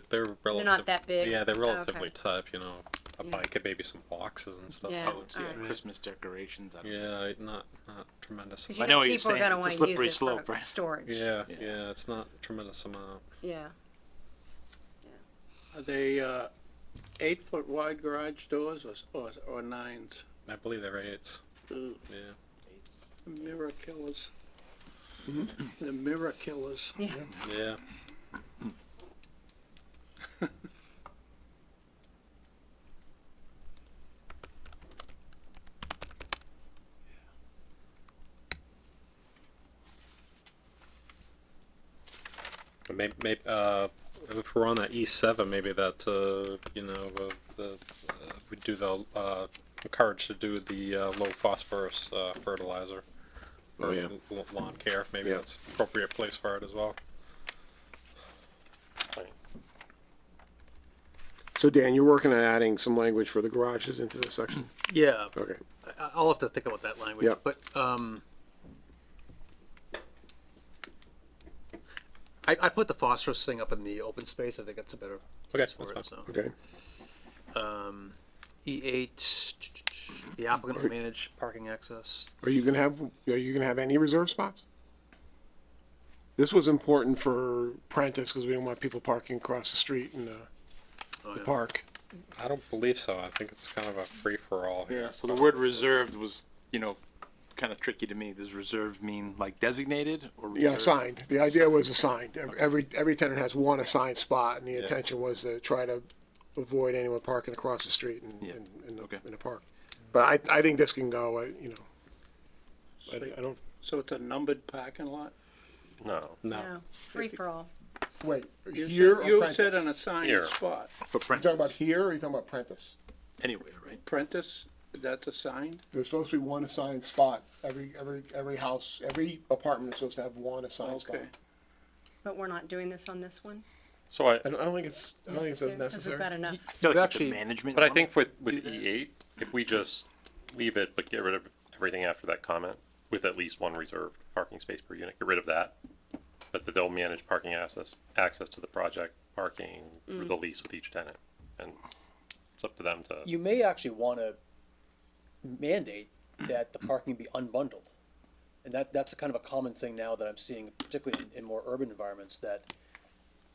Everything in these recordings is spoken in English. But They're relative, that big. Yeah, they're Oh, okay. relatively tough. You know, a Yeah. bike and maybe some boxes and stuff. Yeah. Oh, Oh, it's- it's- yeah, Alright. Christmas decorations. I don't know. yeah, it- not not tremendous. 'Cause amount. you I know what you're people are saying. gonna It's a wanna slippery use it for slope, right? Storage. Yeah, yeah, Yeah. it's not tremendous amount. Yeah. Are they uh, eight foot wide garage doors or, s- or, or nines? I believe they're eights. Ugh, Yeah, The mirror killers. Mm-hmm. The mirror killers. Yeah. yeah. Maybe, maybe uh, if we're on that E seven, maybe that uh, you know uh, the uh, we do the uh, encourage to do the uh, low phosphorus uh, fertilizer. Oh, or yeah. l- Lawn care, maybe Yeah. that's appropriate place for it as well. So Dan, you're working on adding some language for the garages into this section? Yeah, Okay. I- I'll have to think about that language, Yeah. but, um, I, I put the phosphorus thing up in the open space, I think that's a better Okay, place for it, that's so. Okay. E eight, the applicant will manage parking access. Are you gonna have, are you gonna have any reserve spots? This was important for Prentice because we didn't want people parking across the street in the, Oh, the yeah. park. I don't believe so. I think it's kind of a free for all. Yeah. So the word reserved was, you know, kind of tricky to me. Does reserved mean like designated or Yeah, reserved? assigned. The idea was assigned. Ev- Every, every tenant has one assigned spot and the intention was to try to avoid anyone parking across the street in, Yeah. in, in the, Okay. in the park. But I, I think this can go, I- you know, I, So, I don't, so it's a numbered parking lot? No. No. Free for all. wait, You said- here or You said Prentice? an assigned Here. spot. For You talking about Prentice, here or you talking about Prentice? anyway, right? Prentice, that's assigned? There's supposed to be one assigned spot. Every, every, every house, every apartment is supposed to have one assigned spot. Okay. But we're not doing this on this one? So I, I don't, I don't think it's, I don't think it's as Because we've got necessary. enough. Yeah, like You the actually- management. but I one? think with, with E eight, if we just leave it, but get rid of everything after that comment, with at least one reserved parking space per unit, get rid of that. But that they'll manage parking access, access to the project, parking through the lease with each tenant, and it's up to them to, You may actually wanna mandate that the parking be unbundled. And that, that's a kind of a common thing now that I'm seeing, particularly in, in more urban environments, that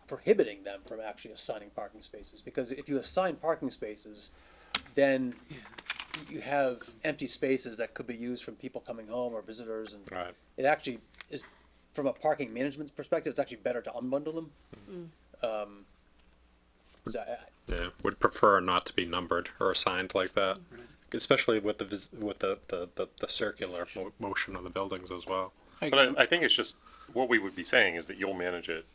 prohibiting them from actually assigning parking spaces, because if you assign parking spaces, then you have empty spaces that could be used from people coming home or visitors, and Right. it actually is, from a parking management perspective, it's actually better to unbundle them. Um, so I- I- Yeah, would prefer not to be numbered or assigned like that, especially with the vis- with the the, the, the circular mo- motion of the buildings as well. but I, I think it's just, what we would be saying is that you'll manage it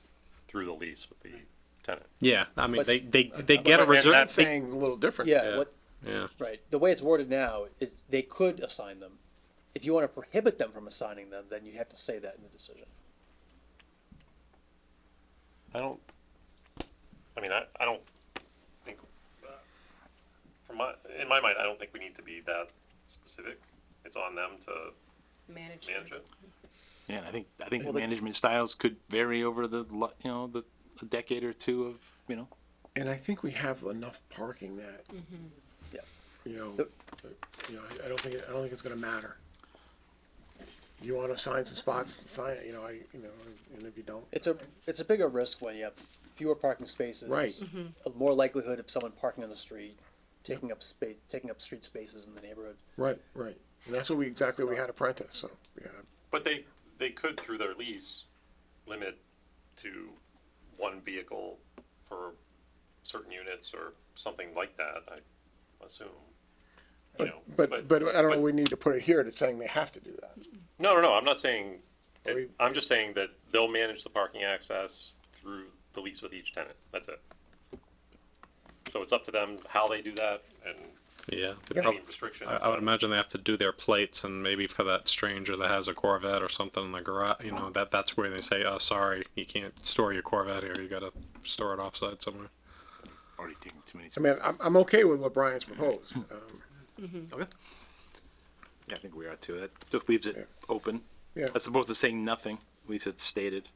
through the lease with the tenant. Yeah, I mean But- they they- they, they get a but- and reserve- reserve. that's- Saying a little different. yeah, what, yeah, Right. The way it's worded now is they could assign them. If you want to prohibit them from assigning them, then you have to say that in the decision. I don't, I mean, I, I don't think, uh, from my, in my mind, I don't think we need to be that specific. It's on them to Manage. manage it. Yeah, I think I think Well, the the- management styles could vary over the lo- you know the a decade or two of you know. And I think we have enough parking that. Yeah. You know, The- uh, you know, I- I don't think, I don't think it's gonna matter. You wanna assign some spots, assign it, you know, I, you know, and if you don't, It's a, it's a bigger risk when you have fewer parking spaces. Right. A More likelihood of someone parking on the street, taking up space, taking up street spaces in the neighborhood. right, right. And that's what we, exactly what we had at Prentice, so, yeah. But they, they could, through their lease, limit to one vehicle for certain units or something like that, I assume. You know, But, but I don't know, we need to put it here to saying they have to do that. No, no, no, I'm not saying, Are we- I'm just saying that they'll manage the parking access through the lease with each tenant, that's it. So it's up to them how they do that and yeah. They any prob- restrictions. I, I would imagine they have to do their plates, and maybe for that stranger that has a Corvette or something in the garage, you know that that's where they say, "Oh, sorry, you can't store your Corvette here. You got to store it offsite somewhere." Already taking too many. I mean, I'm, I'm okay with what Brian's proposed. Um, Okay. Yeah, I think we are too. That just leaves it Yeah. open. Yeah. As opposed to saying nothing, at least it's stated.